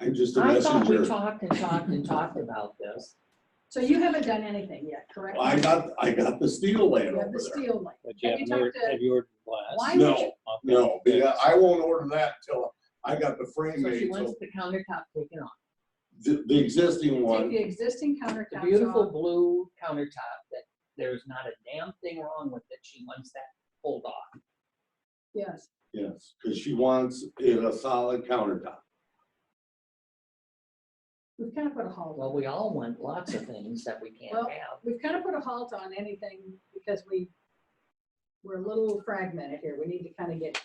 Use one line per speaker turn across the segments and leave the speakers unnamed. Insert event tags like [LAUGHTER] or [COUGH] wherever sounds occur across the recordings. I'm just a
I thought we
messenger.
talked and talked and talked about this.
So you haven't done anything yet, correct?
I got, I got the steel laying
You have
over
the
there.
steel light.
But you
Have you
haven't ordered,
talked to-
have you ordered
Why
glass?
would
No.
you,
Okay.
No, because I won't order that until I got the frame
So she
made,
wants
so
the countertop taken off.
the, the existing
take
one,
the existing countertops
The
off?
beautiful blue countertop that there's not a damn thing wrong with it. She wants that pulled off.
Yes,
yes, because she wants it a solid countertop.
we've kind of put a halt
Well, we all want lots of things that we can't
Well-
have.
we've kind of put a halt on anything because we, we're a little fragmented here. We need to kind of get,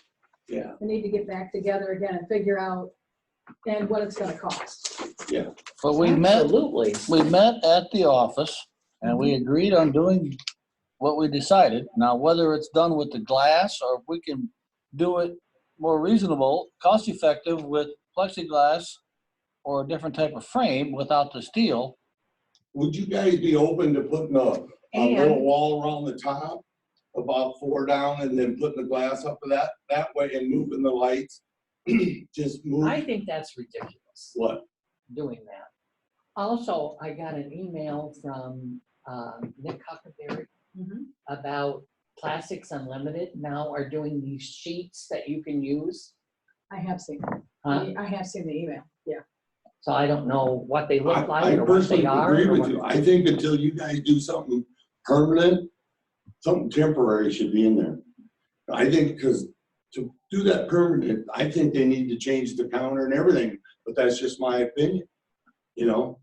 Yeah,
we need to get back together again and figure out and what it's gonna cost.
But we met,
Absolutely.
we met at the office and
Mm-hmm.
we agreed on doing what we decided. Now, whether it's done with the glass or if we can do it more reasonable, cost effective with plexiglass or a different type of frame without the steel.
would you guys be open to putting a, a little
And
wall around the top? About four down and then putting the glass up for that, that way and moving the lights, [CLEARS THROAT] just
I
move,
think that's ridiculous.
what,
doing that. Also, I got an email from um, Nick Huckleberry
Mm-hmm.
about Plastics Unlimited now are doing these sheets that you can use.
I have seen,
huh?
I have seen the email, yeah.
So I don't know what they
I,
look
I
like or what
personally
they are.
agree
or
with
what-
you. I think until you guys do something permanent, something temporary should be in there. I think, because to do that permanent, I think they need to change the counter and everything, but that's just my opinion, you know?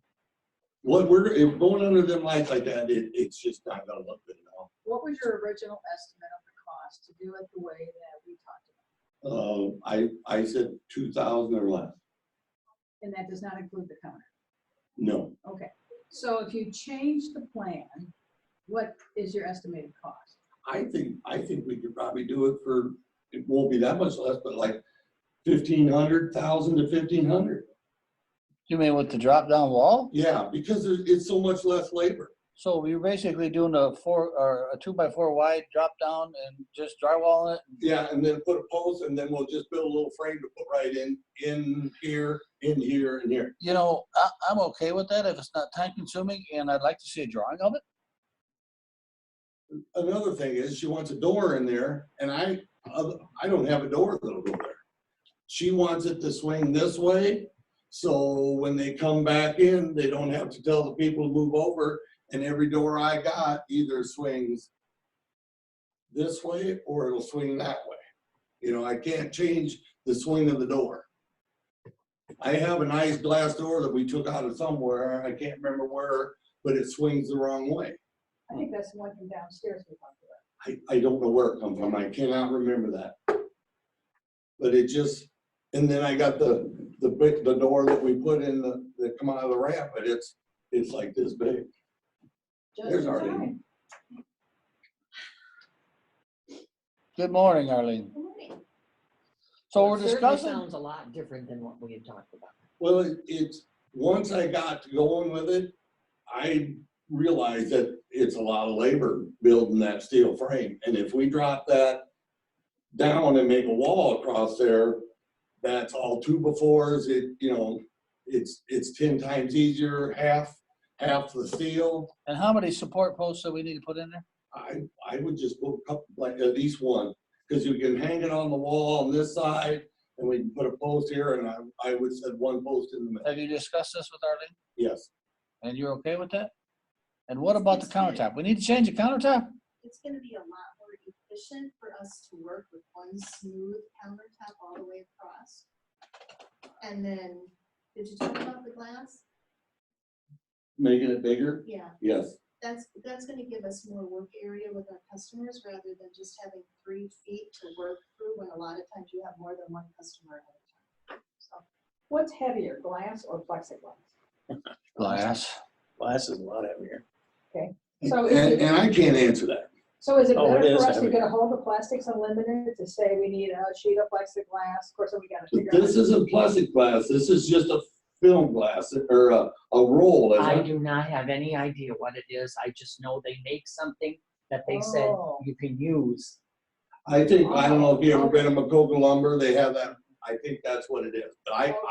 What we're, if going under them lights like that, it, it's just not gonna look good at
What was your original estimate of the cost to do it the way that we talked about?
all. Uh, I, I said two thousand or less.
And that does not include the counter.
No,
Okay, so if you change the plan, what is your estimated cost?
I think, I think we could probably do it for, it won't be that much less, but like fifteen hundred, thousand to fifteen hundred.
You mean with the drop down wall?
Yeah, because there- it's so much less labor.
So we are basically doing a four or a two by four wide drop down and just drywall it.
Yeah, and then put a post and then we'll just build a little frame to put right in, in here, in here, and here.
You know, I, I'm okay with that if it's not time consuming and I'd like to see a drawing of it.
Another thing is she wants a door in there and I, uh, I don't have a door that'll go there. She wants it to swing this way, so when they come back in, they don't have to tell the people to move over. And every door I got either swings this way or it'll swing that way. You know, I can't change the swing of the door. I have a nice glass door that we took out of somewhere, I can't remember where, but it swings the wrong way.
I think that's the one from downstairs we talked about.
I, I don't know where it comes from, I cannot remember that. But it just, and then I got the, the big, the door that we put in the, that come out of the ramp, but it's, it's like this big. There's
Just in
already-
time.
Good morning, Arlene. So we're
It certainly
discussing,
Sounds a lot different than what we had talked about.
Well, it- it's, once I got going with it, I realized that it's a lot of labor building that steel frame, and if we drop that down and make a wall across there, that's all two befores, it, you know, it's, it's ten times easier, half, half the steel.
and how many support posts that we need to put in there?
I, I would just put a couple, like at least one, because you can hang it on the wall on this side, and we can put a post here, and I, I would set one post in the middle,
Have you discussed this with Arlene?
yes.
And you're okay with that? And what about the countertop? We need to change the countertop?
it's gonna be a lot more efficient for us to work with one smooth countertop all the way across. And then, did you talk about the glass?
Making it bigger?
Yeah,
Yes.
that's, that's gonna give us more work area with our customers rather than just having three feet to work through when a lot of times you have more than one customer at a time. So,
What's heavier, glass or plexiglass?
Glass.
Glass is a lot heavier.
So is
And,
it,
and I can't answer that.
so is it
Oh, it
better
is
for us to
heavy.
get a hold of Plastics Unlimited to say we need a sheet of plexiglass? Of course, then we gotta
But
figure out.
This isn't plastic glass, this is just a film glass or a, a roll,
I
isn't it?
do not have any idea what it is. I just know they make something that they said
Oh.
you can use.
I think, I don't know if you ever been to Macoka lumber, they have that, I think that's what it is. But I,